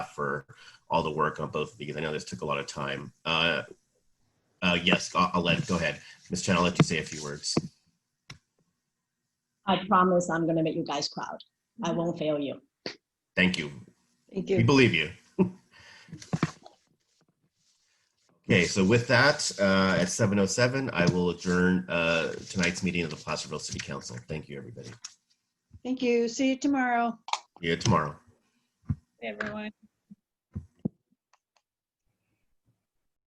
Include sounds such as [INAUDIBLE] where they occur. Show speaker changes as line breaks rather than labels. for all the work on both of these. I know this took a lot of time. Uh, uh, yes, I'll, I'll let, go ahead. Ms. Chen, I'll let you say a few words.
I promise I'm gonna make you guys proud. I won't fail you.
Thank you.
Thank
We
you.
believe you. [LAUGHS] Okay, so with that, uh, at 7:07, I will adjourn uh, tonight's meeting of the Placerville City Council. Thank you, everybody.
Thank you. See you tomorrow,
See you tomorrow.
everyone.